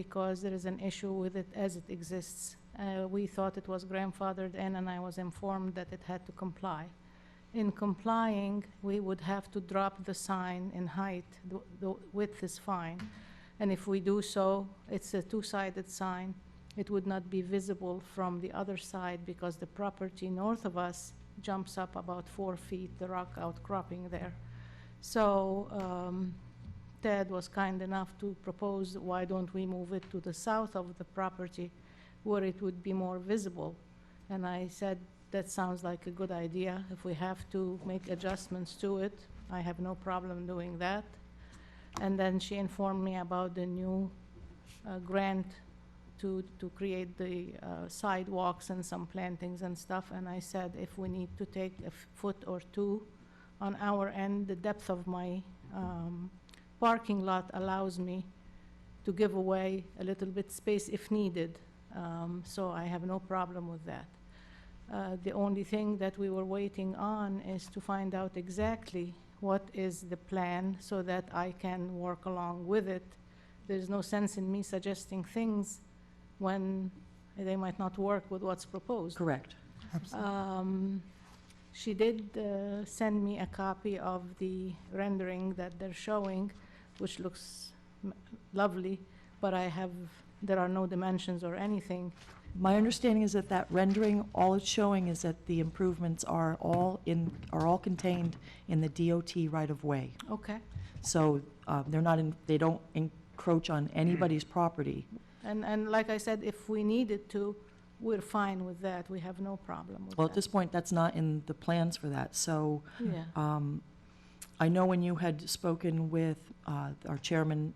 because there is an issue with it as it exists. Uh, We thought it was grandfathered in, and I was informed that it had to comply. In complying, we would have to drop the sign in height, the- the width is fine. And if we do so, it's a two-sided sign. It would not be visible from the other side because the property north of us jumps up about four feet, the rock outcropping there. So um, Ted was kind enough to propose, why don't we move it to the south of the property where it would be more visible? And I said, that sounds like a good idea. If we have to make adjustments to it, I have no problem doing that. And then she informed me about the new uh, grant to, to create the uh, sidewalks and some plantings and stuff. And I said, if we need to take a f- foot or two on our end, the depth of my um, parking lot allows me to give away a little bit space if needed. Um, So I have no problem with that. Uh, The only thing that we were waiting on is to find out exactly what is the plan so that I can work along with it. There's no sense in me suggesting things when they might not work with what's proposed. Correct. Um, She did uh, send me a copy of the rendering that they're showing, which looks m- lovely, but I have, there are no dimensions or anything. My understanding is that that rendering, all it's showing is that the improvements are all in, are all contained in the DOT right-of-way. Okay. So uh, they're not in, they don't encroach on anybody's property. And, and like I said, if we needed to, we're fine with that, we have no problem with that. Well, at this point, that's not in the plans for that. So Yeah, um, I know when you had spoken with uh, our chairman,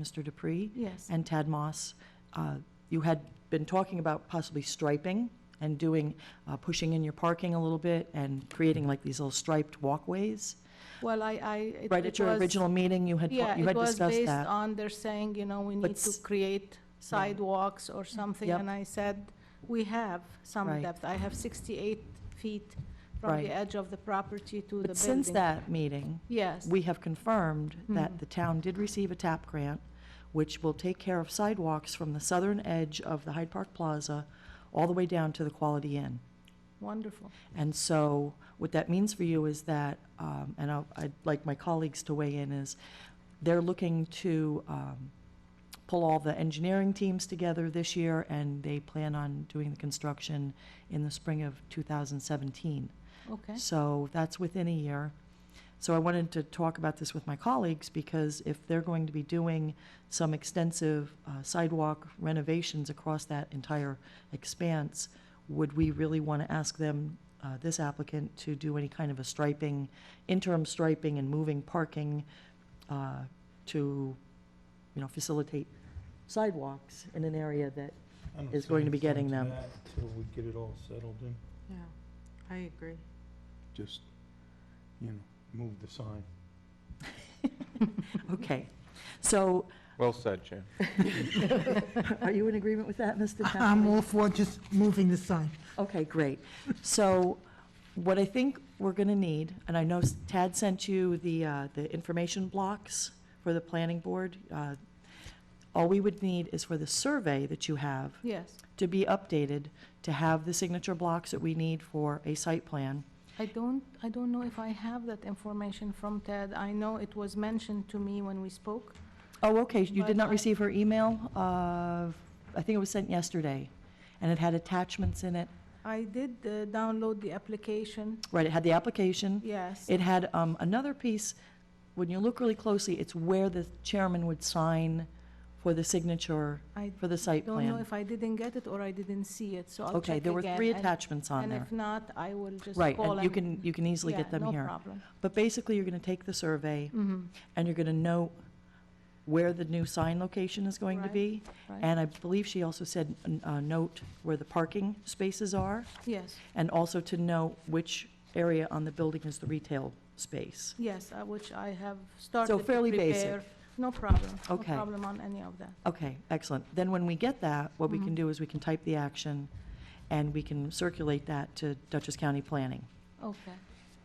Mr. Dupree, yes, and Tad Moss, uh, you had been talking about possibly striping and doing, uh, pushing in your parking a little bit and creating like these little striped walkways. well, I, I. it- Right it at your was- original meeting, you had, Yeah, you it had was discussed based that. on, they're saying, you know, we But need to s- create sidewalks or something, Yep. and I said, we have some Right. depth. I have sixty-eight feet from the Right. edge of the property to the building. But since that meeting, Yes, we have confirmed Mhm. that the town did receive a TAP grant, which will take care of sidewalks from the southern edge of the Hyde Park Plaza all the way down to the Quality Inn. wonderful, And so what that means for you is that, um, and I'll- I'd like my colleagues to weigh in, is they're looking to um, pull all the engineering teams together this year, and they plan on doing the construction in the spring of 2017. okay. So that's within a year. So I wanted to talk about this with my colleagues, because if they're going to be doing some extensive uh, sidewalk renovations across that entire expanse, would we really want to ask them, uh, this applicant, to do any kind of a striping, interim striping and moving parking uh, to, you know, facilitate sidewalks in an area that, I don't is see going to be any point getting to them. that Till we get it all settled in, Yeah, I agree. just, you know, move the sign. okay. So Well said, Jim. are you in agreement with that, Mr. Tappan? I'm all for just moving the sign. Okay, great. So what I think we're going to need, and I know Tad sent you the, uh, the information blocks for the planning board. uh, All we would need is for the survey that you have Yes, to be updated, to have the signature blocks that we need for a site plan. I don't, I don't know if I have that information from Ted. I know it was mentioned to me when we spoke. Oh, okay, you But did not I- receive her email of, I think it was sent yesterday, and it had attachments in it. I did uh, download the application, Right, it had the application. yes. Mm-hmm. It had um, another piece, when you look really closely, it's where the chairman would sign for the signature I for the site don't know plan. if I didn't get it or I didn't see it, so I'll check again. Okay, there were three and- attachments on And there. if not, I will just Right, call and you and- can, you can easily Yeah, get them No here. problem. But basically, you're going to take the survey, Mhm, and you're going to note where the new sign location is going to Right, be. right. And I believe she also said, n- uh, note where the parking spaces are, Yes, and also to note which area on the building is the retail space. yes, uh, which I have started to fairly basic. prepare. No problem. Okay. No problem on any of that. Okay, excellent. Then when we get that, what we can Mhm. do is we can type the action, and we can circulate that to Dutchess County Planning, Okay,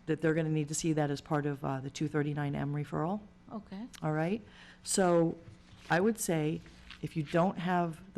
that they're going to need to see that as part of uh, the 239M referral, okay. all right? So I would say, If you don't have